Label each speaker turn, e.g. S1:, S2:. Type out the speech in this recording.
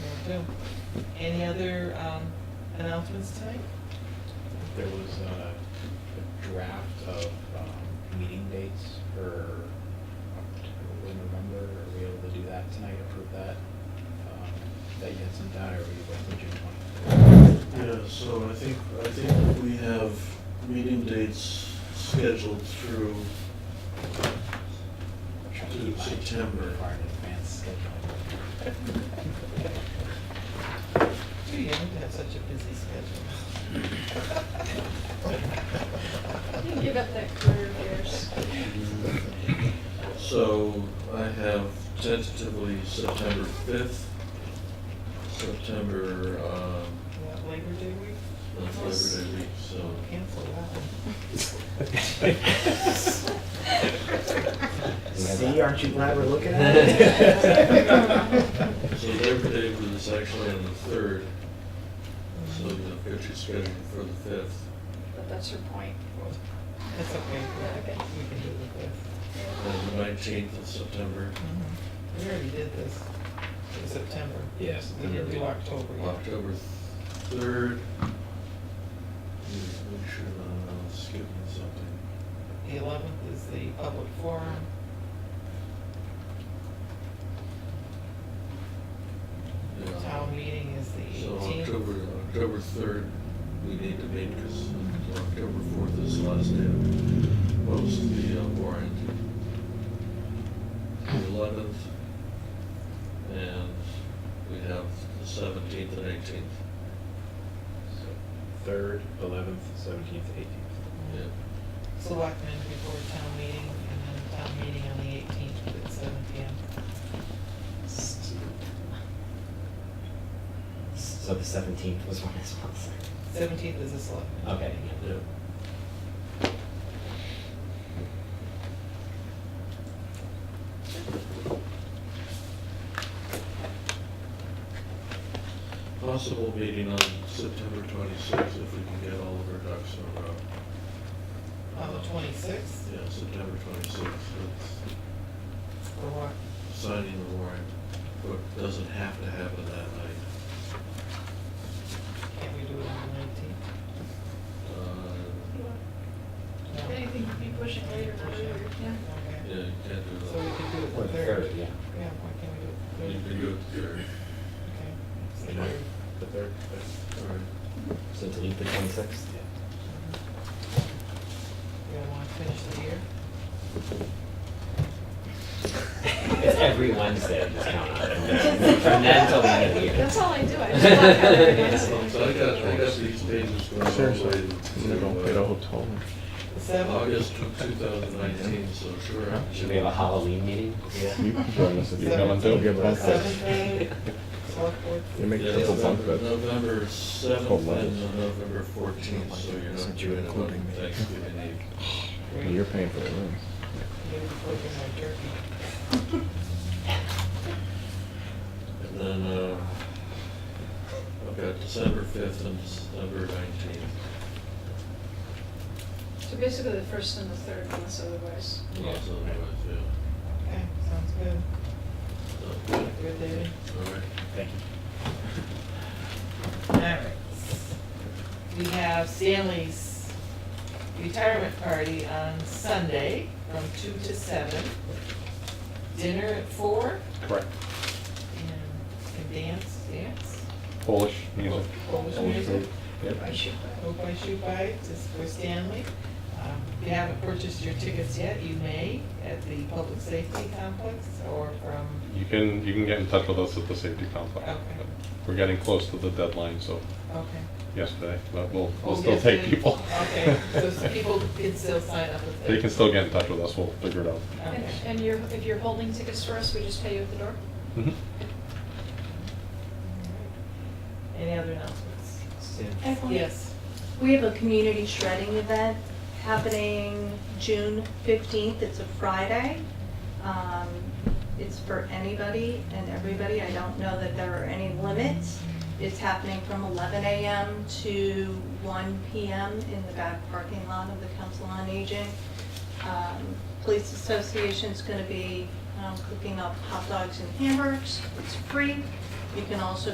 S1: do. Any other um, announcements tonight?
S2: There was uh, a draft of um, meeting dates for October, November. Are we able to do that tonight, approve that? um, That you had sent out, or were you waiting till June
S3: Yeah, so I think, I think we have meeting dates scheduled through,
S2: 20th? Trying to
S3: Through
S2: keep my
S3: September.
S2: Far in advance scheduling.
S1: Do you have to have such a busy schedule?
S4: You Give up that career of yours.
S3: so I have tentatively September fifth, September, um,
S1: What, Labor Day week?
S3: that's Labor Day week, so.
S1: Cancel that.
S2: See, aren't you glad we're looking
S3: at
S2: it?
S3: So Labor Day was actually on the third, so the picture's scheduled for the fifth.
S4: But that's your point.
S1: That's okay. We
S4: Okay.
S1: can- We can do it with this.
S3: And the nineteenth of September,
S1: Mhm.
S3: Mm-hmm.
S1: We already did this in September.
S2: Yes.
S1: We didn't do October yet.
S3: October third. Make sure I'm not skipping something.
S1: The eleventh is the public forum.
S3: Yeah.
S1: Town meeting is the
S3: So
S1: eighteenth.
S3: October, October third, we need to meet because October fourth is the last day of most of the uh, warrant. The eleventh, and we have the seventeenth and eighteenth.
S2: Third, eleventh, seventeenth, eighteenth.
S3: Yeah,
S1: Selectmen before town meeting, and then town meeting on the eighteenth at seven P M.
S5: So the seventeenth was one as well. so-
S1: Seventeenth is a selectmen.
S5: Okay.
S3: yeah. Possible meeting on September twenty-sixth if we can get all of our ducks in a row.
S1: On the twenty-sixth,
S3: Yeah, September twenty-sixth, it's
S1: for what?
S3: signing the warrant, but doesn't have to happen that night.
S1: Can't we do it on the nineteenth?
S3: Uh,
S1: No.
S4: Anything you'd be pushing later, or earlier, yeah.
S3: Yeah,
S1: Okay.
S3: you can't do
S1: So we
S3: that.
S1: could do it
S5: Or
S1: the third.
S5: yeah.
S1: Yeah, why can't we do
S3: You
S1: it the
S3: can
S1: third?
S3: do it there.
S1: Okay. It's the
S2: You know,
S1: third.
S2: The third,
S3: All right.
S5: So delete the twenty-sixth?
S1: Mm-hmm. You don't want to finish the year?
S5: It's every Wednesday, just count on it. From then till the end of the year.
S4: That's all I do, I just walk out every
S3: So I
S4: Wednesday.
S3: got, I got these pages going all the way to.
S6: They don't get a hotel.
S1: The seventh?
S3: August two thousand nineteen, so sure. I-
S5: Should we have a Halloween meeting?
S6: You can join us if you want to.
S1: Seventeenth,
S6: Give us-
S1: Seventh day, select board.
S6: You make
S3: Yeah,
S6: triple bunk
S3: November-
S6: beds.
S3: November
S6: Twelve levels.
S3: seventh and November fourteenth, so you're not
S6: Since you're
S3: doing it
S6: including
S3: on
S6: me.
S3: Thanksgiving Eve.
S6: And You're paying for the room.
S1: Maybe flipping my turkey.
S3: And then, uh, I've got December fifth and December nineteenth.
S4: So basically the first and the third, unless otherwise.
S3: Lots of otherwise, yeah.
S1: Okay, sounds good.
S3: So, All
S1: Good, David?
S3: right.
S2: thank you.
S1: All right. We have Stanley's retirement party on Sunday from two to seven. Dinner at four
S6: Correct.
S1: and and dance, dance.
S6: Polish music.
S1: Polish music.
S4: I should, uh,
S1: Hope I shoot by, it, just for Stanley. Um, If you haven't purchased your tickets yet, you may at the Public Safety Complex or from,
S7: You can, you can get in touch with us at the safety complex.
S1: Okay.
S7: We're getting close to the deadline, so
S1: okay.
S7: yesterday, but we'll,
S1: Oh,
S7: we'll still
S1: yes,
S7: take
S1: they-
S7: people.
S1: Okay, so people can still sign up with
S7: They can still get in touch with us, we'll figure it out.
S4: And,
S1: Okay.
S4: and you're, if you're holding tickets for us, we just pay you at the door?
S7: Mhm.
S1: Any other announcements?
S8: Excellent.
S1: Yes.
S8: We have a community shredding event happening June fifteenth. It's a Friday. Um, It's for anybody and everybody. I don't know that there are any limits. It's happening from eleven AM to one PM in the back parking lot of the Council on Aging. Um, Police Association's gonna be um, cooking up hot dogs and hamburgers. It's free. You can also